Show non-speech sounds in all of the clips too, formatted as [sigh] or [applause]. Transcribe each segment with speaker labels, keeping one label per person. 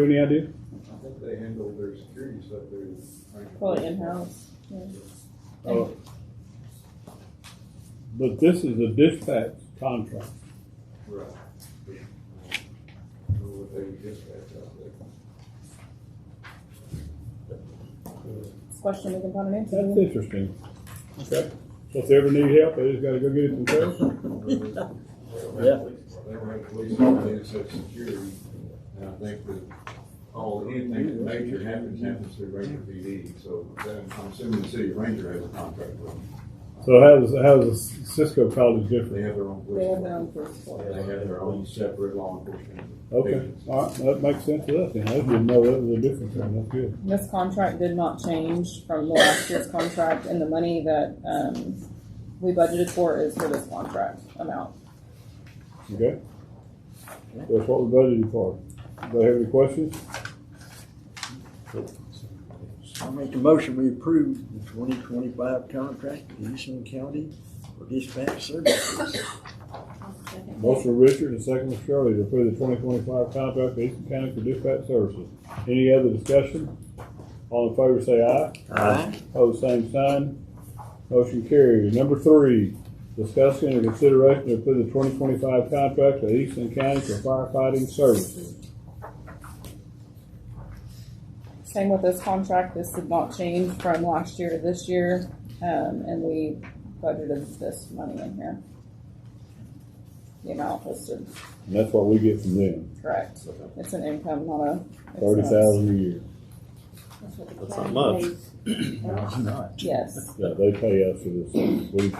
Speaker 1: have any idea?
Speaker 2: I think they handle their security stuff there.
Speaker 3: Probably in-house.
Speaker 1: Oh. But this is a dispatch contract.
Speaker 2: Right. Know what they would dispatch out there.
Speaker 3: Question we can find an answer.
Speaker 1: That's
Speaker 3: to.
Speaker 1: interesting. Okay. So if they ever need help, they just gotta go get it themselves?
Speaker 4: Yeah.
Speaker 2: They were at police, they said security, and I think that all, anything that major happens, happens through Ranger PD, so then I'm assuming the city ranger has a contract with them.
Speaker 1: So how does, how does Cisco College
Speaker 2: They
Speaker 1: different?
Speaker 2: have their own
Speaker 3: They
Speaker 2: police.
Speaker 3: have their
Speaker 2: department.
Speaker 3: own police force.
Speaker 2: They have their own separate law enforcement.
Speaker 1: Okay,
Speaker 2: agencies.
Speaker 1: all right, that makes sense to us, then. I didn't know that was a difference, that's good.
Speaker 3: This contract did not change from the last year's contract, and the money that, um, we budgeted for is for this contract amount.
Speaker 1: Okay? That's what we budgeted for. Do they have any questions?
Speaker 4: I make a motion, we approve the twenty twenty-five contract to Houston County for dispatch services.
Speaker 1: Motion for Richard and second for Shirley to approve the twenty twenty-five contract for Eastern County for dispatch services. Any other discussion? All in favor say aye.
Speaker 4: Aye.
Speaker 1: Pose same sign. Motion carries. Number three, discussing and consideration to approve the twenty twenty-five contract to Eastern County for firefighting services.
Speaker 3: Same with this contract, this did not change from last year to this year, um, and we budgeted this money in here. The amount listed,
Speaker 1: And that's what we get from them,
Speaker 3: correct, it's an income, not a.
Speaker 1: thirty thousand a year.
Speaker 5: That's not much.
Speaker 3: Yes,
Speaker 1: Yeah, they pay us for this. We,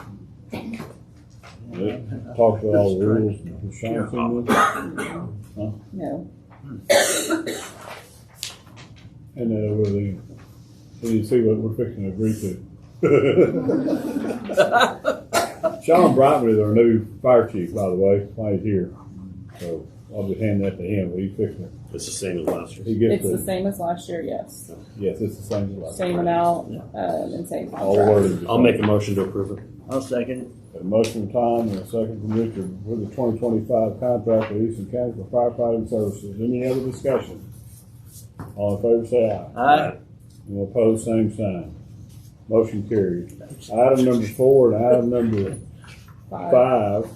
Speaker 1: they talked about all the rules. and Sean seen this?
Speaker 3: no,
Speaker 1: And then over there, so you see what we're fixing to [laughs] agree to. Sean Brightman is our new fire chief, by the way, while he's here. So I'll just hand that to him, will you fix it?
Speaker 5: It's the same as last
Speaker 1: He
Speaker 5: year.
Speaker 1: gets
Speaker 3: it's the
Speaker 1: the,
Speaker 3: same as last year, yes,
Speaker 1: yes, it's the same as last.
Speaker 3: same amount, um, and same
Speaker 1: All
Speaker 3: contract.
Speaker 1: worded.
Speaker 5: I'll make a motion to approve it.
Speaker 4: I'll second
Speaker 1: A motion from Tom and a second from Richard for the twenty twenty-five contract with Eastern County for firefighting services. Any other discussion? All in favor, say aye.
Speaker 4: it. Aye.
Speaker 1: All opposed, same sign. Motion carried. Item number four and item number
Speaker 3: Five,
Speaker 1: five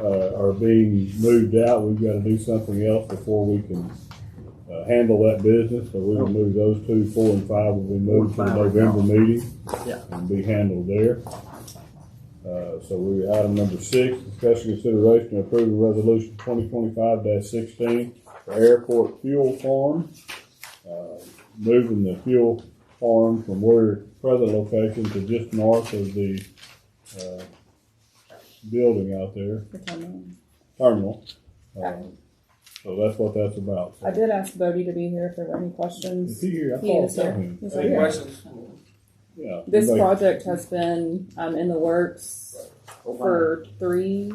Speaker 1: uh, are being moved out. We've got to do something else before we can uh, handle that business. So we'll move those two, four and five will be moved to the
Speaker 4: Four and five are
Speaker 1: November meeting
Speaker 4: Yeah.
Speaker 1: and be handled there. Uh, So we, item number six, discussion consideration of approving resolution twenty twenty-five sixteen for airport fuel farm. Uh, Moving the fuel farm from where present location to just north of the uh, building out there,
Speaker 3: for ten million.
Speaker 1: terminal. Uh, So that's what that's about.
Speaker 3: I did ask Bodie to be here if there were any
Speaker 1: Is
Speaker 3: questions.
Speaker 1: he here? I
Speaker 3: He
Speaker 1: thought I
Speaker 3: is
Speaker 1: saw
Speaker 3: here.
Speaker 1: him.
Speaker 3: He's
Speaker 1: Uh,
Speaker 3: right here.
Speaker 1: Yeah.
Speaker 3: This
Speaker 1: Everybody-
Speaker 3: project has been, um, in the works for three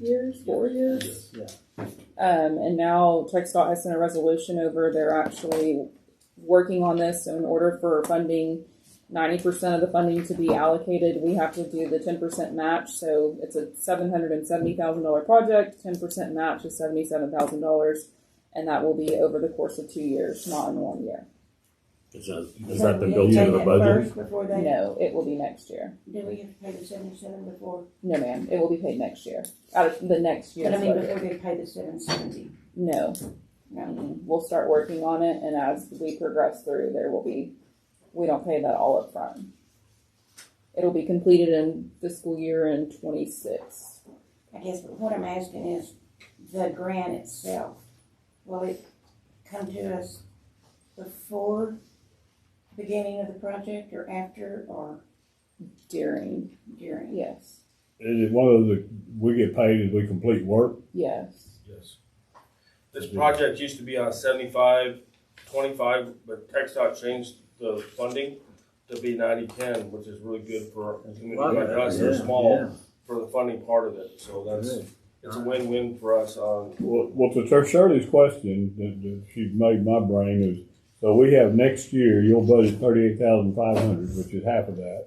Speaker 3: years, four years.
Speaker 4: Yeah.
Speaker 3: Um, and now TechStop has sent a resolution over, they're actually working on this in order for funding, ninety percent of the funding to be allocated, we have to do the ten percent match, so it's a seven hundred and seventy thousand dollar project, ten percent match is seventy-seven thousand dollars, and that will be over the course of two years, not in one year.
Speaker 5: Is that, has that been
Speaker 6: So
Speaker 5: built
Speaker 6: we
Speaker 5: into
Speaker 6: have to
Speaker 5: the
Speaker 6: pay that
Speaker 5: budget?
Speaker 6: first Before they,
Speaker 3: No, it will be next year.
Speaker 6: do we have to pay the seventy-seven before,
Speaker 3: No, ma'am, it will be paid next year, out of the next
Speaker 6: but
Speaker 3: year's
Speaker 6: I mean,
Speaker 3: budget.
Speaker 6: before they pay the seven seventy?
Speaker 3: No,
Speaker 6: No,
Speaker 3: Mm-mm. we'll start working on it, and as we progress through, there will be, we don't pay that all up front. It'll be completed in fiscal year in twenty-six.
Speaker 6: I guess, but what I'm asking is, the grant itself, will it come to us before beginning of the project, or after, or
Speaker 3: During,
Speaker 6: during?
Speaker 3: yes,
Speaker 1: Is it one of the, we get paid as we complete work?
Speaker 3: yes,
Speaker 7: Yes. This project used to be on seventy-five, twenty-five, but TechDOT changed the funding to be ninety-ten, which is really good for a community like us,
Speaker 4: Yeah,
Speaker 7: they're small,
Speaker 4: yeah.
Speaker 7: for the funding part of it, so that's, it's a win-win for us on,
Speaker 1: Well, well, to Ter- Shirley's question that, that she made my brain is, so we have next year, you'll budget thirty-eight thousand five hundred, which is half of that.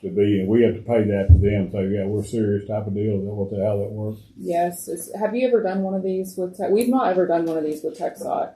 Speaker 1: to be, and we have to pay that to them, so, yeah, we're serious type of deal, is that what the, how that works?
Speaker 3: Yes. It's, have you ever done one of these with? Tech? We've not ever done one of these with TechSot.